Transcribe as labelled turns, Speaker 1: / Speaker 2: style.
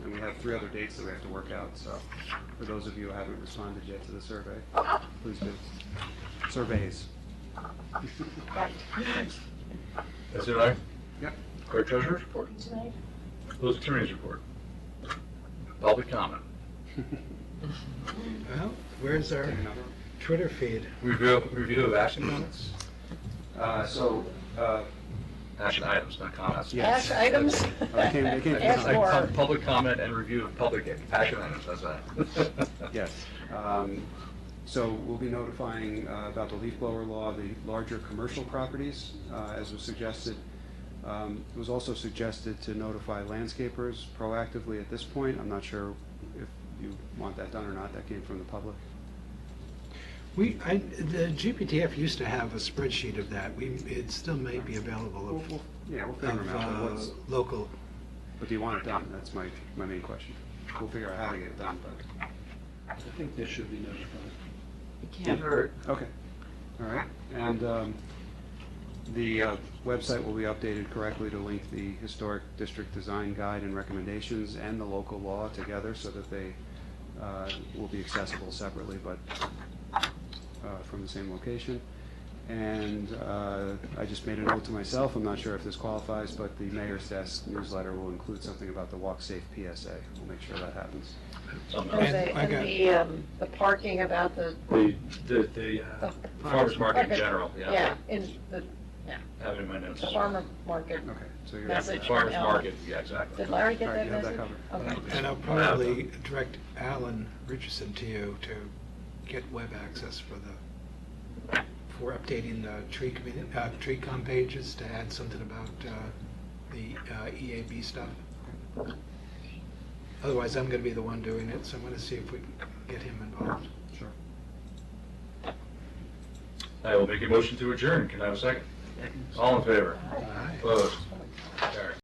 Speaker 1: have three other dates that we have to work out, so for those of you who haven't responded yet to the survey, please do. Surveys.
Speaker 2: That's it, I.
Speaker 1: Yep.
Speaker 2: Clerk Treasurer's report.
Speaker 3: tonight.
Speaker 2: Those attorneys report. Public comment.
Speaker 4: Well, where's our
Speaker 1: Take another.
Speaker 4: Twitter feed?
Speaker 2: Review, review of action comments?
Speaker 1: Uh, so, uh,
Speaker 2: Action items, not comments.
Speaker 1: Yes.
Speaker 3: Ash items?
Speaker 1: I came- I came to
Speaker 3: Ash
Speaker 1: some-
Speaker 3: more.
Speaker 2: Like, pub- Public comment and review of public action items, that's that.
Speaker 1: Yes. Um, So we'll be notifying uh, about the leaf blower law, the larger commercial properties, uh, as was suggested. Um, It was also suggested to notify landscapers proactively at this point. I'm not sure if you want that done or not. That came from the public.
Speaker 4: We, I, the GPTF used to have a spreadsheet of that. We, it still may be
Speaker 1: We'll-
Speaker 4: available
Speaker 1: we'll- Yeah, we'll
Speaker 4: of,
Speaker 1: figure
Speaker 4: of,
Speaker 1: them out. but
Speaker 4: uh,
Speaker 1: what's-
Speaker 4: local.
Speaker 1: But do you want it done? That's my, my main question. We'll figure out how to get it done, but,
Speaker 5: I think this should be notified.
Speaker 2: You heard.
Speaker 1: okay. All right. And um, the uh, website will be updated correctly to link the historic district design guide and recommendations and the local law together so that they uh, will be accessible separately, but uh, from the same location. And uh, I just made a note to myself, I'm not sure if this qualifies, but the mayor's desk newsletter will include something about the Walk Safe PSA. We'll make sure that happens.
Speaker 2: Something
Speaker 3: And
Speaker 2: else.
Speaker 3: the,
Speaker 4: I
Speaker 3: and
Speaker 4: got-
Speaker 3: the, um, the parking about the,
Speaker 2: The, the, the uh, farmer's market in
Speaker 3: Okay.
Speaker 2: general, yeah,
Speaker 3: yeah, in the
Speaker 2: having my notes.
Speaker 3: the farmer market.
Speaker 1: Okay, so you're.
Speaker 2: Yeah,
Speaker 3: Message
Speaker 2: Farmer's
Speaker 3: from
Speaker 2: market, yeah, exactly.
Speaker 3: Did Larry get
Speaker 1: All right,
Speaker 3: that
Speaker 1: you have
Speaker 3: message?
Speaker 1: that
Speaker 3: Okay.
Speaker 4: And I'll probably direct Alan Richardson to you to get web access for the, for updating the tree commu- uh, tree com pages to add something about, uh, the uh, EAB stuff. Otherwise, I'm gonna be the one doing it, so I'm gonna see if we can get him involved.
Speaker 1: Sure.
Speaker 2: I will make a motion to adjourn, can I have a second? All in favor?
Speaker 4: All right.
Speaker 2: Opposed? Carried.